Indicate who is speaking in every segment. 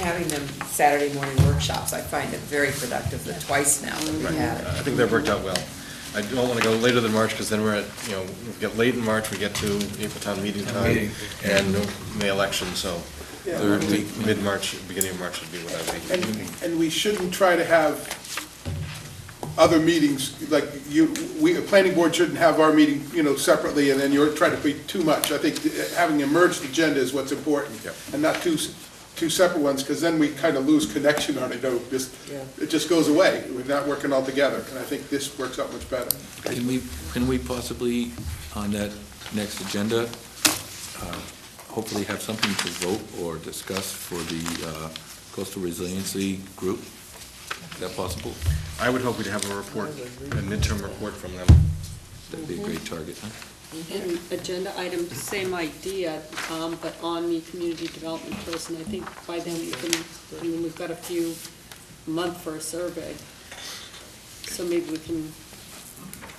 Speaker 1: having them Saturday morning workshops, I find it very productive, the twice now that
Speaker 2: Right.
Speaker 1: we have
Speaker 2: I
Speaker 1: it.
Speaker 2: think that worked out well. I don't want to go later than March, because then we're at, you know, we get late in March, we get to April town meeting time, and the election, so
Speaker 3: Yeah.
Speaker 2: third week, mid-March, beginning of March would be what I'd be.
Speaker 3: And, and we shouldn't try to have other meetings, like you, we, the planning board shouldn't have our meeting, you know, separately, and then you're trying to be too much. I think uh, having a merged agenda is what's important.
Speaker 2: Yep.
Speaker 3: And not two, s- two separate ones, because then we kind of lose connection on it, though, just, it just goes away. We're not working all together, and I think this works out much better.
Speaker 4: Can we, can we possibly, on that next agenda, uh, hopefully have something to vote or discuss for the uh, coastal resiliency group? Is that possible?
Speaker 2: I would hope we'd have a report, a midterm report from them.
Speaker 4: That'd be a great target, huh?
Speaker 5: And agenda item, same idea, um, but on the community development person, I think by then we can, I mean, we've got a few month for a survey. So maybe we can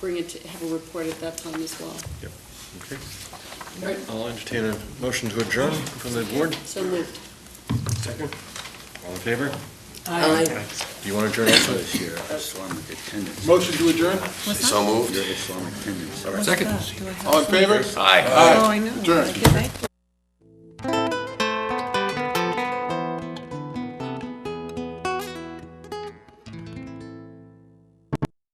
Speaker 5: bring it to, have a report at that time as well.
Speaker 2: Yep, okay. I'll entertain a motion to adjourn from the board.
Speaker 5: So moved.
Speaker 2: Second. All in favor?
Speaker 5: Aye.
Speaker 2: Do you want to adjourn also?
Speaker 6: Your Islamic attendance.
Speaker 3: Motion to adjourn?
Speaker 6: So moved. Your Islamic attendance.
Speaker 4: Second.
Speaker 3: All in favor?
Speaker 6: Aye.
Speaker 3: Aye. Adjourn.